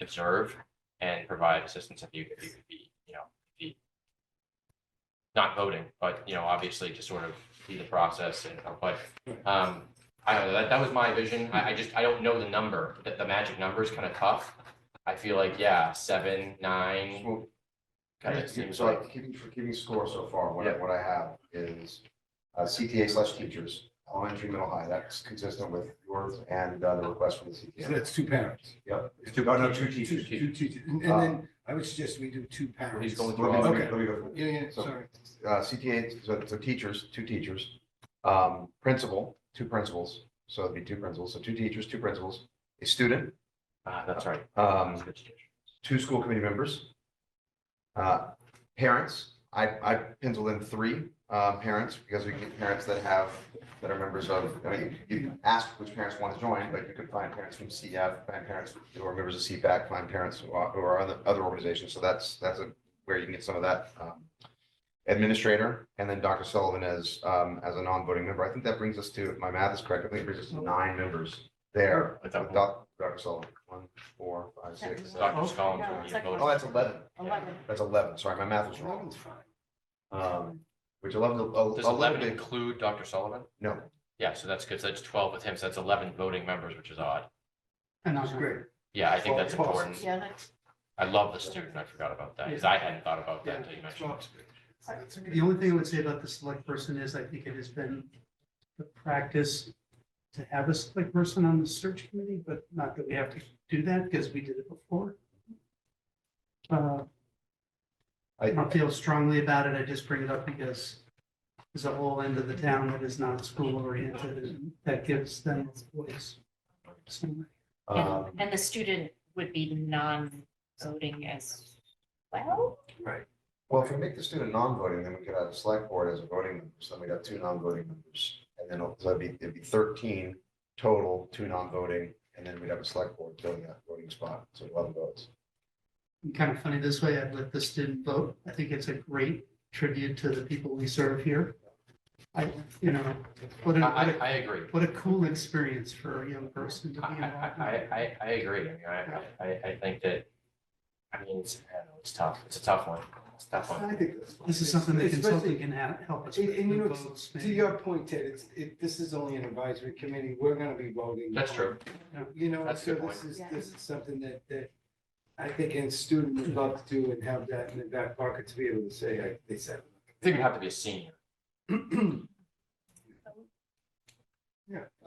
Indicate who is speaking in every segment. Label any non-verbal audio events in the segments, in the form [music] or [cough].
Speaker 1: observe and provide assistance if you, if you could be, you know, be not voting, but, you know, obviously to sort of see the process and, but, um, I don't know, that, that was my vision. I, I just, I don't know the number, the, the magic number is kind of tough. I feel like, yeah, seven, nine,
Speaker 2: So
Speaker 1: kind of seems
Speaker 2: so
Speaker 1: like,
Speaker 2: I'm keeping, for keeping score so far, what, I-
Speaker 1: Yeah.
Speaker 2: what I have is uh, CTA slash teachers, elementary, middle, high, that's consistent with yours and uh, the request from the
Speaker 3: So
Speaker 2: CTA.
Speaker 3: that's two parents.
Speaker 2: Yep, it's two, oh, no, two
Speaker 3: Two,
Speaker 2: teachers.
Speaker 3: two teachers. And and then I would suggest we do two parents.
Speaker 1: Uh, He's going
Speaker 2: Let me- let me-
Speaker 3: Okay.
Speaker 2: let me go.
Speaker 3: Yeah, yeah,
Speaker 2: So-
Speaker 3: sorry.
Speaker 2: uh, CTA, so, so teachers, two teachers, um, principal, two principals, so it'd be two principals, so two teachers, two principals, a student,
Speaker 1: ah, that's right.
Speaker 2: um, two school committee members, uh, parents, I, I penciled in three, uh, parents, because we get parents that have, that are members of, I mean, you can ask which parents want to join, but you could find parents from CF, find parents who are members of CPAC, find parents who are, who are other, other organizations, so that's, that's a- where you can get some of that, um, administrator, and then Dr. Sullivan as, um, as a non-voting member. I think that brings us to, if my math is correct, I think it brings us to nine members there.
Speaker 1: With
Speaker 2: With
Speaker 1: that-
Speaker 2: Doc- Dr. Sullivan, one, four, five, six, seven.
Speaker 1: Dr. Scollins
Speaker 4: No,
Speaker 1: would be
Speaker 4: second.
Speaker 1: voting.
Speaker 2: Oh, that's eleven.
Speaker 4: Eleven.
Speaker 2: That's eleven. Sorry, my math was wrong.
Speaker 3: Robin's fine.
Speaker 2: Um, which eleven, oh,
Speaker 1: Does
Speaker 2: eleven,
Speaker 1: eleven
Speaker 2: bit-
Speaker 1: include Dr. Sullivan?
Speaker 2: no,
Speaker 1: Yeah, so that's good. So that's twelve with him. So that's eleven voting members, which is odd.
Speaker 3: And that's great.
Speaker 1: Yeah, I think
Speaker 3: Well,
Speaker 1: that's
Speaker 3: it's possible.
Speaker 1: important.
Speaker 4: Yeah, that's,
Speaker 1: I love the student. I forgot about that because I hadn't thought about that until you mentioned. it.
Speaker 5: The only thing I would say about the select person is I think it has been the practice to have a select person on the search committee, but not that we have to do that because we did it before. Uh, I
Speaker 2: I,
Speaker 5: don't feel strongly about it. I just bring it up because there's a whole end of the town that is not school oriented and that gives them a voice. So,
Speaker 2: um,
Speaker 4: and the student would be non-voting as well?
Speaker 2: well, if we make the student non-voting, then we could have a select board as a voting member, so then we'd have two non-voting members. And then it'll- so it'd be, it'd be thirteen total, two non-voting, and then we'd have a select board filling that voting spot, so eleven votes.
Speaker 5: kind of funny this way, I'd let the student vote. I think it's a great tribute to the people we serve here. I, you know, what a,
Speaker 1: I,
Speaker 5: what
Speaker 1: I,
Speaker 5: a,
Speaker 1: I agree.
Speaker 5: what a cool experience for a young person to
Speaker 1: I,
Speaker 5: be
Speaker 1: I,
Speaker 5: involved.
Speaker 1: I,
Speaker 5: in.
Speaker 1: I- I agree. I mean, I, I, I think that, I mean, it's, I don't know, it's tough. It's a tough one. It's a tough one.
Speaker 3: I think that's fine.
Speaker 5: This is something that consulting
Speaker 3: Especially-
Speaker 5: can ha- help us
Speaker 3: And-
Speaker 5: with.
Speaker 3: and you
Speaker 5: who
Speaker 3: know,
Speaker 5: votes,
Speaker 3: To
Speaker 5: maybe.
Speaker 3: your point, Ted, it's, it, this is only an advisory committee. We're gonna be voting.
Speaker 1: That's true.
Speaker 3: You know,
Speaker 1: That's a
Speaker 3: so
Speaker 1: good
Speaker 3: this
Speaker 1: point.
Speaker 3: is,
Speaker 4: Yeah.
Speaker 3: this is something that, that I think a student would love to do and have that in the back pocket to be able to say, I, they said.
Speaker 1: I think it'd have to be a senior.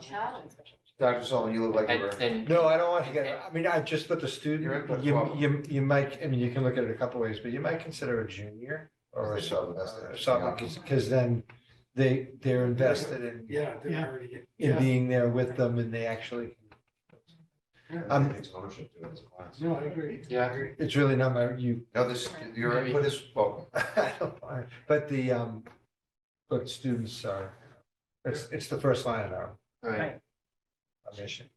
Speaker 4: Child.
Speaker 2: Dr. Sullivan, you look like you
Speaker 1: And,
Speaker 2: were.
Speaker 1: and
Speaker 6: No, I don't want to get, I mean, I just put the
Speaker 2: Your
Speaker 6: student,
Speaker 2: input's
Speaker 6: you,
Speaker 2: welcome.
Speaker 6: you, you might, I mean, you can look at it a couple ways, but you might consider a junior or a uh, sub,
Speaker 2: Sub, that's the-
Speaker 6: because, then they, they're invested in,
Speaker 3: Yeah, they're
Speaker 5: Yeah.
Speaker 3: already. getting-
Speaker 6: in
Speaker 3: Yeah.
Speaker 6: being there with them and they actually,
Speaker 2: I
Speaker 6: um,
Speaker 2: think it's ownership to it as a class.
Speaker 3: No, I agree.
Speaker 1: Yeah.
Speaker 3: I agree.
Speaker 6: it's really not my, you,
Speaker 2: No, this, your input is welcome.
Speaker 6: [laughs] I don't mind. but the, um, but students are, it's, it's the first line in our
Speaker 2: Right.
Speaker 6: our mission.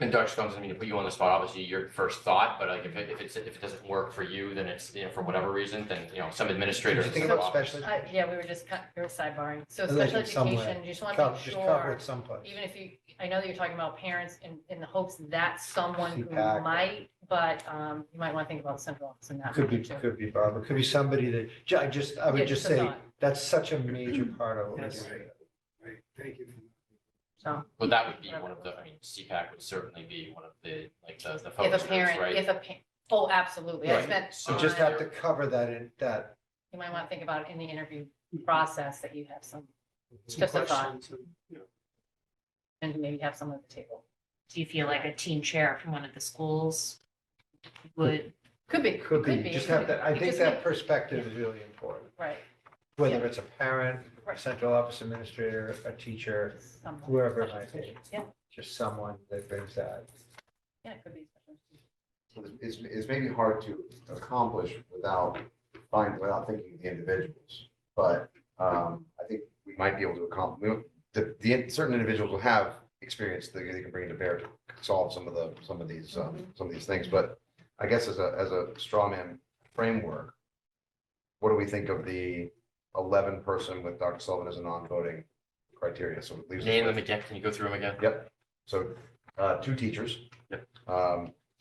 Speaker 1: and Dr. Scoggins, I mean, to put you on the spot, obviously your first thought, but like if it, if it's, if it doesn't work for you, then it's, you know, for whatever reason, then, you know, some
Speaker 6: Did
Speaker 1: administrator.
Speaker 6: you
Speaker 1: in
Speaker 6: think
Speaker 1: some
Speaker 6: about
Speaker 1: office-
Speaker 6: special,
Speaker 4: Uh, yeah, we were just cut, we were sidebarring. So
Speaker 6: Unless
Speaker 4: special
Speaker 6: it's somewhere.
Speaker 4: education, you just want to
Speaker 6: cover-
Speaker 4: make
Speaker 6: just cover
Speaker 4: sure,
Speaker 6: it someplace?
Speaker 4: even if you, I know that you're talking about parents in, in the hopes that someone who
Speaker 6: CPAC.
Speaker 4: might, but, um, you might want to think about the central office in that.
Speaker 6: Could be,
Speaker 4: too.
Speaker 6: could be Barbara, could be somebody that, ju- I just, I
Speaker 4: Yeah,
Speaker 6: would just
Speaker 4: a
Speaker 6: say,
Speaker 4: thought.
Speaker 6: that's such a major part of what we
Speaker 5: Yes.
Speaker 6: do.
Speaker 3: Right, thank you.
Speaker 4: So,
Speaker 1: Well, that would be one of the, I mean, CPAC would certainly be one of the, like, the, the
Speaker 4: if
Speaker 1: focus groups,
Speaker 4: a parent,
Speaker 1: right?
Speaker 4: if a, pa- oh, absolutely. I
Speaker 1: Right.
Speaker 4: spent
Speaker 1: So
Speaker 6: You just have to
Speaker 4: time-
Speaker 6: cover that in, that,
Speaker 4: You might want to think about it in the interview process that you have some,
Speaker 5: Some
Speaker 4: Just a thought.
Speaker 5: questions and-
Speaker 4: and maybe have someone at the table. Do you feel like a team chair from one of the schools would? Could be,
Speaker 6: could be, you just have that, I
Speaker 4: It
Speaker 6: think
Speaker 4: just
Speaker 6: that
Speaker 4: may-
Speaker 6: perspective is really important.
Speaker 4: Right.
Speaker 6: Whether it's a parent, a
Speaker 4: Right.
Speaker 6: central office administrator, a teacher,
Speaker 4: someone.
Speaker 6: whoever it might be.
Speaker 4: Yeah,
Speaker 6: just someone that brings that.
Speaker 4: yeah, it could be. special.
Speaker 2: is, is maybe hard to accomplish without find, without thinking of the individuals. But um, I think we might be able to accomplish, the, the certain individuals will have experience that they can bring to bear to solve some of the, some of these, um, some of these things. But I guess as a, as a straw man framework, what do we think of the eleven person with Dr. Sullivan as a non-voting criteria? So it leaves us
Speaker 1: Name
Speaker 2: with-
Speaker 1: them again. Can you go through them again?
Speaker 2: Yep, so, uh, two teachers.
Speaker 1: Yep.
Speaker 2: Um,